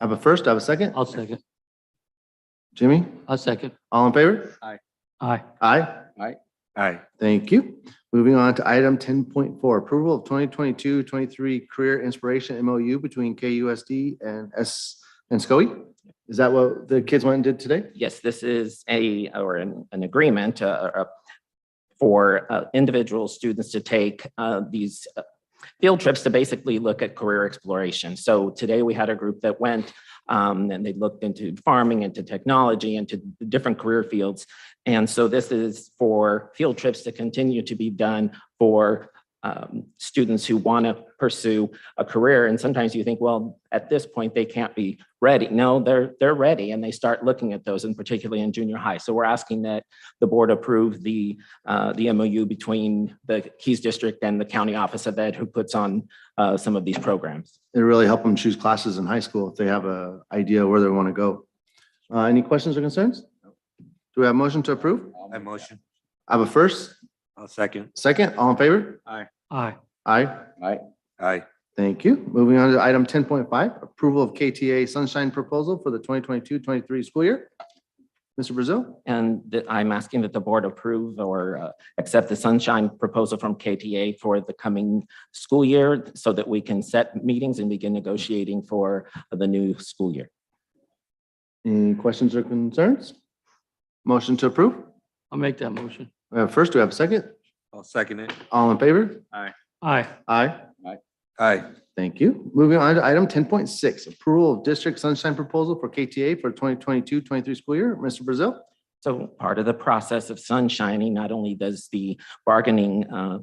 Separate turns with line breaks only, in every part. I have a first, I have a second.
I'll second.
Jimmy,
I'll second.
all in favor?
Aye.
Aye.
Aye.
Aye. Thank you. Moving on to item ten point four, approval of 2022-23 career inspiration MOU between KUSD and S and SCOE. Is that what the kids went and did today?
Yes, this is a, or an, an agreement, uh, uh, for, uh, individual students to take, uh, these uh, field trips to basically look at career exploration. So today we had a group that went, um, and they looked into farming, into technology, into different career fields. And so this is for field trips to continue to be done for, um, students who want to pursue a career. And sometimes you think, well, at this point, they can't be ready. No, they're, they're ready and they start looking at those and particularly in junior high. So we're asking that the board approve the, uh, the MOU between the Keys District and the County Office of Ed who puts on, uh, some of these programs.
It really help them choose classes in high school if they have a idea where they want to go. Uh, any questions or concerns? Do we have a motion to approve?
I'll
I
make that.
motion.
I have a first,
I'll second.
second, all in favor?
Aye.
Aye.
Aye.
Thank you. Moving on to item ten point five, approval of KTA Sunshine Proposal for the 2022-23 school year. Mr. Brazil,
And that I'm asking that the board approve or uh, accept the sunshine proposal from KTA for the coming school year so that we can set meetings and begin negotiating for the new school year.
any questions or concerns? Motion to approve?
I'll make that motion.
We have a first, do we have a second?
I'll second it.
All in favor?
Aye.
Aye.
Aye.
Thank you. Moving on to item ten point six, approval of district sunshine proposal for KTA for 2022-23 school year. Mr. Brazil?
So part of the process of sunshining, not only does the bargaining uh,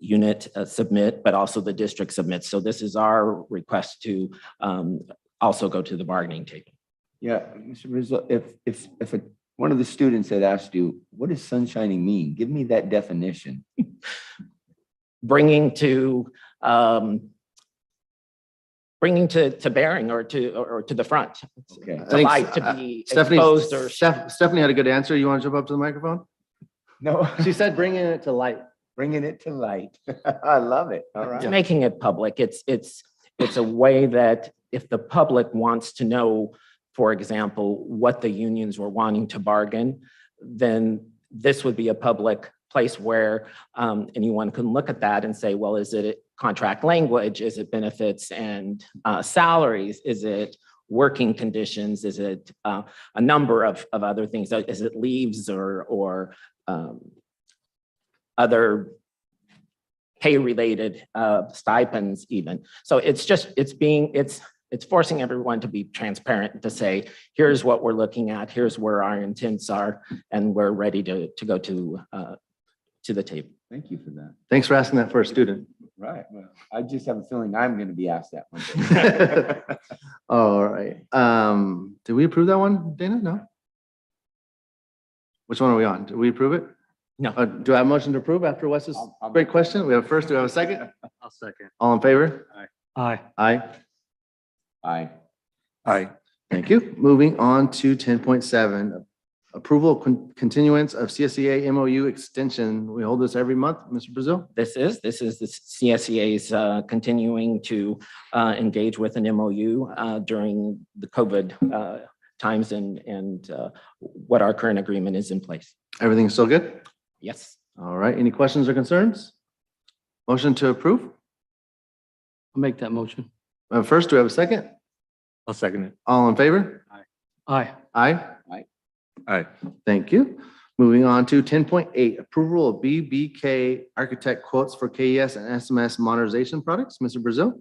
unit uh, submit, but also the district submits. So this is our request to um, also go to the bargaining table.
Yeah, Mr. Rizzo, if, if, if a- one of the students had asked you, what does sunshining mean? Give me that definition.
Bringing to, um, bringing to, to bearing or to, or to the front,
Okay.
I
to
think
light,
uh,
to be
Stephanie,
exposed or.
Steph- Stephanie had a good answer. You want to jump up to the microphone?
No,
She said bringing it to light.
bringing it to light. I love it. All
It's
right.
making it public. It's, it's, it's a way that if the public wants to know, for example, what the unions were wanting to bargain, then this would be a public place where um, anyone can look at that and say, well, is it contract language? Is it benefits and uh, salaries? Is it working conditions? Is it uh, a number of, of other things? Is it leaves or, or um, other pay-related uh, stipends even. So it's just, it's being, it's, it's forcing everyone to be transparent to say, here's what we're looking at, here's where our intents are, and we're ready to, to go to, uh, to the table.
Thank you for that.
Thanks for asking that for a student.
Right. Well, I just have a feeling I'm going to be asked that one. day.
All right. Um, did we approve that one, Dana? No? Which one are we on? Did we approve it?
No.
Uh, do I have a motion to approve after Wes's
I'll- I'll-
great question? We have a first, do we have a second?
I'll second.
All in favor?
Aye.
Aye.
Aye.
Aye.
Thank you. Moving on to ten point seven, approval con- continuance of E CSEA MOU extension. We hold this every month, Mr. Brazil.
This is, this is the CSEA's uh, continuing to uh, engage with an MOU uh, during the COVID uh, times and, and uh, what our current agreement is in place.
Everything's still good?
Yes,
All right. Any questions or concerns? Motion to approve?
I'll make that motion.
Uh, First, do we have a second?
I'll second it.
All in favor?
Aye.
Aye.
Aye.
Thank you. Moving on to ten point eight, approval of BBK architect quotes for KES and SMS modernization products. Mr. Brazil?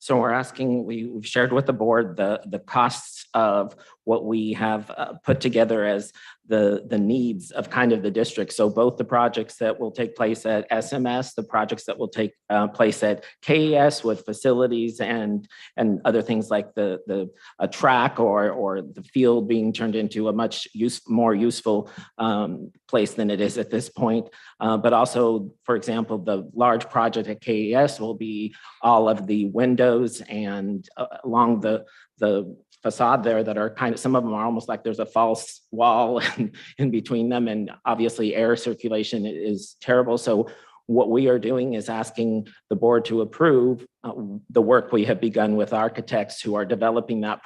So we're asking, we- we've shared with the board the, the costs of what we have uh, put together as the, the needs of kind of the district. So both the projects that will take place at SMS, the projects that will take uh, place at KES with facilities and, and other things like the, the a track or, or the field being turned into a much use, more useful um, place than it is at this point. Uh, But also, for example, the large project at KES will be all of the windows and uh, along the, the facade there that are kind of, some of them are almost like there's a false wall in- in between them. And obviously air circulation i- is terrible. So what we are doing is asking the board to approve uh, the work we have begun with architects who are developing that